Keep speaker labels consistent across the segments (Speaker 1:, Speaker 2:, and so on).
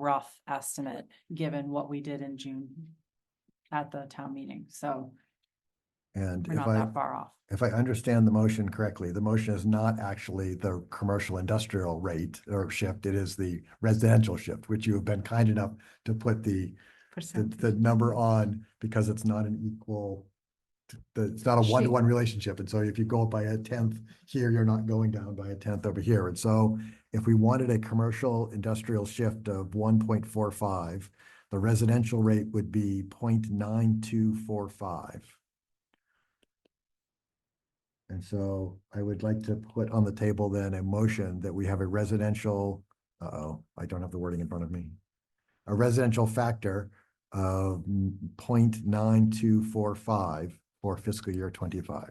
Speaker 1: rough estimate,
Speaker 2: Mm-hmm.
Speaker 1: given what we did in June at the town meeting, so
Speaker 2: And
Speaker 1: we're
Speaker 2: if
Speaker 1: not
Speaker 2: I,
Speaker 1: that far off.
Speaker 2: if I understand the motion correctly, the motion is not actually the commercial industrial rate or shift. It is the residential shift, which you have been kind enough to put the, the, the number on because it's not an equal, the, it's not a one-to-one relationship. And so if you go up by a tenth here, you're not going down by a tenth over here. And so if we wanted a commercial industrial shift of one point four five, the residential rate would be 0.9245. And so I would like to put on the table then a motion that we have a residential, uh-oh, I don't have the wording in front of me. A residential factor of 0.9245 for fiscal year twenty-five.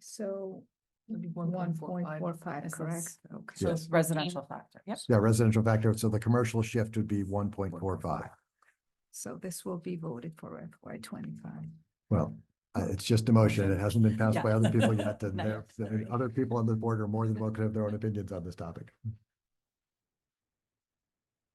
Speaker 3: So
Speaker 4: It'd be
Speaker 3: one point four five,
Speaker 4: This
Speaker 3: correct?
Speaker 4: is-
Speaker 1: So
Speaker 4: Okay.
Speaker 1: it's residential factor, yep.
Speaker 2: Yeah, residential factor, so the commercial shift would be one point four five.
Speaker 3: So this will be voted for FY twenty-five.
Speaker 2: Well, uh, it's just a motion. It hasn't been passed
Speaker 1: Yeah.
Speaker 2: by other people yet, and
Speaker 1: Not
Speaker 2: there,
Speaker 1: yet,
Speaker 2: there-
Speaker 1: sorry.
Speaker 2: other people on the board are more than welcome to have their own opinions on this topic.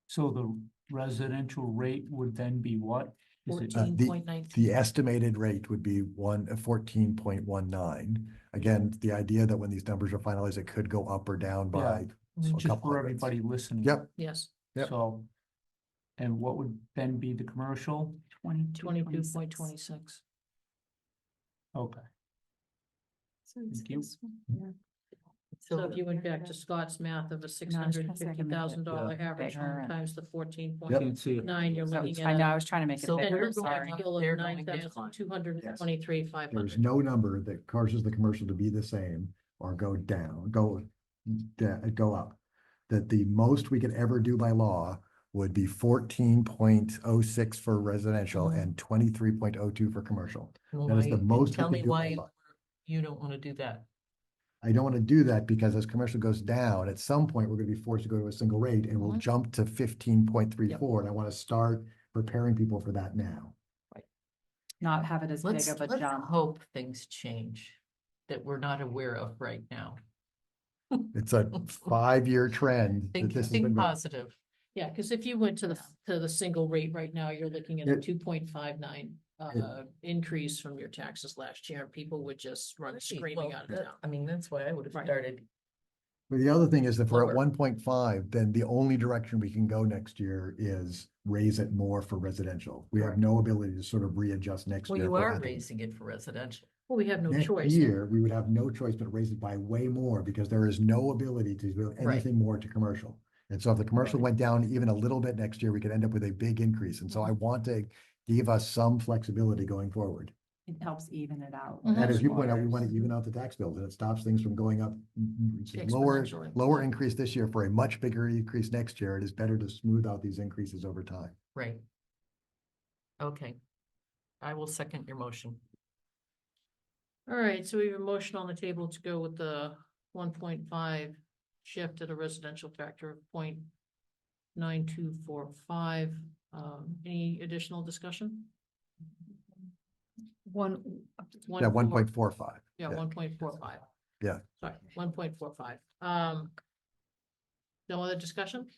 Speaker 5: So the residential rate would then be what? Is it-
Speaker 2: uh,
Speaker 4: Fourteen point nine.
Speaker 2: The estimated rate would be one, uh, fourteen point one nine. Again, the idea that when these numbers are finalized, it could go up or down by,
Speaker 5: it's
Speaker 2: a
Speaker 5: Just
Speaker 2: couple
Speaker 5: for
Speaker 2: of rates.
Speaker 5: everybody listening.
Speaker 2: yep,
Speaker 4: Yes,
Speaker 2: Yep.
Speaker 5: So, and what would then be the commercial?
Speaker 4: twenty-two point twenty-six.
Speaker 5: Okay, Thank you.
Speaker 4: So if you went back to Scott's math of a six hundred and fifty thousand dollar average
Speaker 1: bigger
Speaker 4: home
Speaker 1: and-
Speaker 4: times the fourteen
Speaker 5: I
Speaker 4: point
Speaker 5: can see it.
Speaker 4: nine, you're
Speaker 1: So
Speaker 4: looking
Speaker 1: I know,
Speaker 4: at.
Speaker 1: I was trying to make it
Speaker 4: So
Speaker 1: bigger,
Speaker 4: we're
Speaker 1: I'm sorry.
Speaker 4: going to kill
Speaker 6: They're
Speaker 4: of
Speaker 6: going
Speaker 4: nine
Speaker 6: to
Speaker 4: thousand
Speaker 6: decline.
Speaker 4: two hundred and twenty-three, five
Speaker 2: there's
Speaker 4: hundred.
Speaker 2: no number that causes the commercial to be the same or go down, go, da- go up. That the most we could ever do by law would be fourteen point oh six for residential
Speaker 6: Mm-hmm.
Speaker 4: Mhm.
Speaker 2: and twenty-three point oh two for commercial. That is the most we
Speaker 6: Tell
Speaker 2: could
Speaker 6: me
Speaker 2: do by
Speaker 6: why
Speaker 2: law.
Speaker 6: you don't want to do that.
Speaker 2: I don't want to do that because as commercial goes down, at some point, we're going to be forced to go to a single rate and we'll
Speaker 6: Mm-hmm.
Speaker 4: Mhm.
Speaker 2: jump to fifteen point three four. And I want to start preparing people for that now.
Speaker 1: Not have it as big
Speaker 6: Let's,
Speaker 1: of a
Speaker 6: let's
Speaker 1: jump.
Speaker 6: hope things change that we're not aware of right now.
Speaker 2: It's a five-year trend. that
Speaker 6: Think,
Speaker 2: this has
Speaker 6: think
Speaker 2: been going-
Speaker 6: positive.
Speaker 4: Yeah, because if you went to the, to the single rate right now, you're looking at a two point five nine uh, increase from your taxes last year. and People would just run
Speaker 6: Right,
Speaker 4: screaming
Speaker 6: well,
Speaker 4: out of
Speaker 6: that-
Speaker 4: town.
Speaker 6: I mean, that's why I would have
Speaker 4: Right.
Speaker 6: started.
Speaker 2: But the other thing is that if we're at
Speaker 6: Lower.
Speaker 2: one point five, then the only direction we can go next year is raise it more for residential. We have
Speaker 6: Correct.
Speaker 2: no ability to sort of readjust next year.
Speaker 6: Well, you
Speaker 2: for
Speaker 6: are
Speaker 2: other-
Speaker 6: raising it for residential.
Speaker 4: Well, we have no
Speaker 2: Next
Speaker 4: choice.
Speaker 2: year, we would have no choice but raise it by way more because there is no ability to do
Speaker 6: Right.
Speaker 2: anything more to commercial. And so if the commercial went down even a little bit next year, we could end up with a big increase. And so I want to give us some flexibility going forward.
Speaker 1: It helps even it out.
Speaker 4: Mhm.
Speaker 2: And as you point out, we want to even out the tax bills and it stops things from going up mm,
Speaker 4: Mm-hmm.
Speaker 2: mm, lower,
Speaker 6: exponentially.
Speaker 2: lower increase this year for a much bigger increase next year. It is better to smooth out these increases over time.
Speaker 6: Right. Okay. I will second your motion.
Speaker 4: All right, so we have a motion on the table to go with the one point five shift at a residential factor of point nine two four five. Um, any additional discussion?
Speaker 3: One,
Speaker 2: Yeah,
Speaker 4: four-
Speaker 2: one point four five.
Speaker 4: Yeah,
Speaker 2: yeah.
Speaker 4: one point four five.
Speaker 2: Yeah.
Speaker 4: Sorry, one point four five. Um. No other discussion?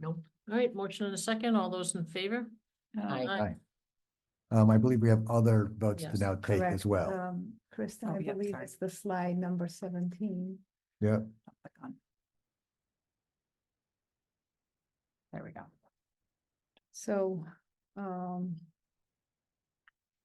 Speaker 6: Nope.
Speaker 4: All right, motion and a second. All those in favor?
Speaker 6: Aye.
Speaker 2: Um, I believe we have other votes to
Speaker 4: Yes,
Speaker 2: now take as
Speaker 3: correct.
Speaker 2: well.
Speaker 3: Um, Kristen,
Speaker 1: Oh,
Speaker 3: I
Speaker 1: yeah,
Speaker 3: believe
Speaker 1: sorry.
Speaker 3: it's the slide number seventeen.
Speaker 2: Yeah.
Speaker 1: Click on. There we go.
Speaker 3: So, um,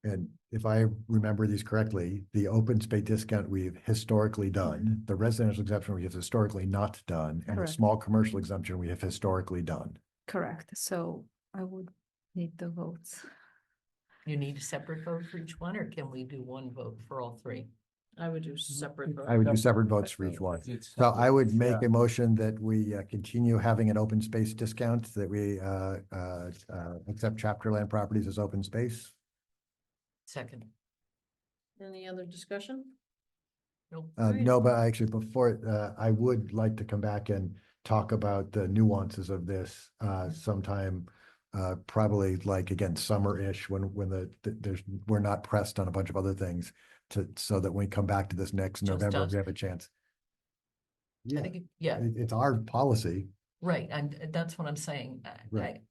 Speaker 2: And if I remember these correctly, the open space discount we've historically done, the residential exemption we have historically not done, and the
Speaker 3: Correct.
Speaker 2: small commercial exemption we have historically done.
Speaker 3: correct, so I would need the votes.
Speaker 6: You need a separate vote for each one, or can we do one vote for all three?
Speaker 4: I would do separate. vote.
Speaker 2: Mm-hmm. I would do separate votes for each one.
Speaker 5: It's
Speaker 2: So I would
Speaker 5: separate,
Speaker 2: make a motion that we uh, continue having an open space discount, that we uh, uh, uh, accept chapter land properties as open space.
Speaker 6: Second.
Speaker 4: Any other discussion?
Speaker 6: Nope.
Speaker 2: Uh,
Speaker 4: Right.
Speaker 2: no, but I actually, before, uh, I would like to come back and talk about the nuances of this, uh, sometime. Uh, probably like again, summer-ish, when, when the, th- there's, we're not pressed on a bunch of other things. To, so that when we come back to this next
Speaker 6: Just
Speaker 2: November,
Speaker 6: us.
Speaker 2: we have a chance.
Speaker 6: I
Speaker 2: Yeah,
Speaker 6: think, it- yeah,
Speaker 2: it- it's our policy.
Speaker 6: Right, and that's what I'm saying. I-
Speaker 2: Right.